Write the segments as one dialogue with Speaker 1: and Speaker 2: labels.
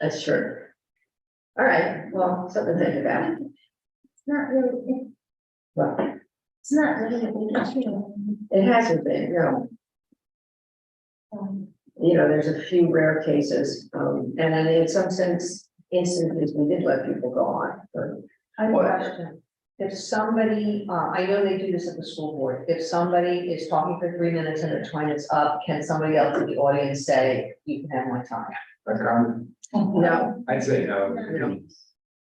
Speaker 1: That's true. All right, well, something to think about.
Speaker 2: It's not really,
Speaker 1: Well,
Speaker 2: it's not really an issue.
Speaker 1: it hasn't been, no.
Speaker 2: Um,
Speaker 1: You know, there's a few rare cases, um, and then in some sense, instances, we did let people go on. but-
Speaker 3: I have a
Speaker 1: Whatever.
Speaker 3: question. If somebody, uh, I know they do this at the school board, if somebody is talking for three minutes and the time is up, can somebody else in the audience say, you can have my time?
Speaker 4: A comment?
Speaker 1: No,
Speaker 4: um, I'd say no.
Speaker 1: No.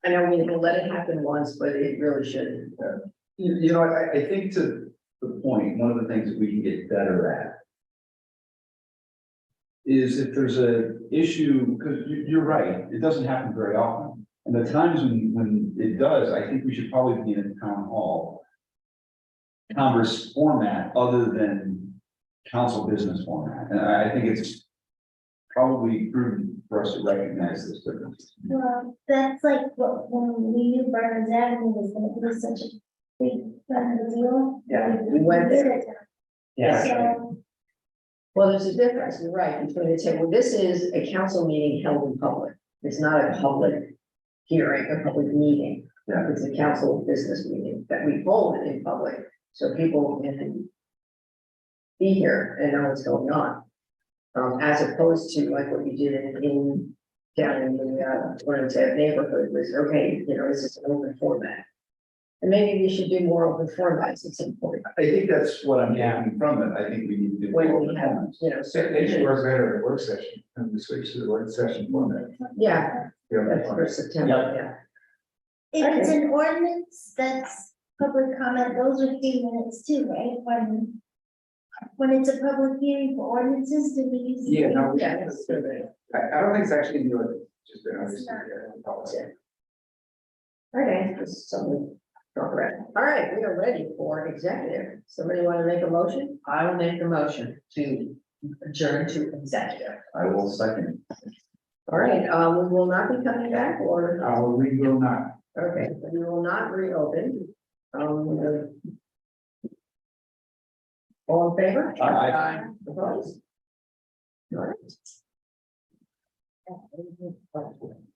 Speaker 1: I know we we let it happen once, but it really shouldn't.
Speaker 5: You, you know, I, I think to the point, one of the things that we can get better at is if there's a issue, because you, you're right, it doesn't happen very often. And the times when, when it does, I think we should probably be in a town hall converse format other than council business format. And I, I think it's probably prudent for us to recognize this difference.
Speaker 2: Well, that's like what, when we knew Burners Avenue was gonna be such a big kind of deal.
Speaker 1: Yeah, we
Speaker 2: We
Speaker 1: went
Speaker 2: did
Speaker 1: there.
Speaker 2: it. So,
Speaker 1: Well, there's a difference, you're right, between the table, this is a council meeting held in public, it's not a public hearing, a public meeting.
Speaker 5: Yeah.
Speaker 1: It's a council business meeting that we hold in public, so people can be here and know what's going on. Um, as opposed to like what you did in, in, down in the, uh, Lawrence Ave neighborhood was, okay, you know, this is an open format. And maybe we should do more open formats at some point,
Speaker 5: I think that's what I'm getting from it. I think we need to do.
Speaker 1: When we
Speaker 5: all the
Speaker 1: have-
Speaker 5: comments.
Speaker 1: you know,
Speaker 4: They
Speaker 1: so.
Speaker 4: they should work better at work session, and we switch to the work session format.
Speaker 1: Yeah,
Speaker 4: you know,
Speaker 1: That's for September, yeah.
Speaker 2: If it's an ordinance, that's public comment, those are three minutes too, right? When, when it's a public hearing for ordinances, do we use? the
Speaker 4: Yeah, no, we-
Speaker 1: Yeah, that's true, right.
Speaker 4: I, I don't think it's actually in the order, just been obviously.
Speaker 1: Okay, just something. to talk about. All right, we are ready for executive. Somebody want to make a motion?
Speaker 3: I will make the motion to adjourn to executive.
Speaker 5: I will second.
Speaker 1: All right, um, we will not be coming back or,
Speaker 4: Uh, we will not.
Speaker 1: okay, we will not reopen. Um, we will- All in favor?
Speaker 5: Aye.
Speaker 1: Opposed? All right.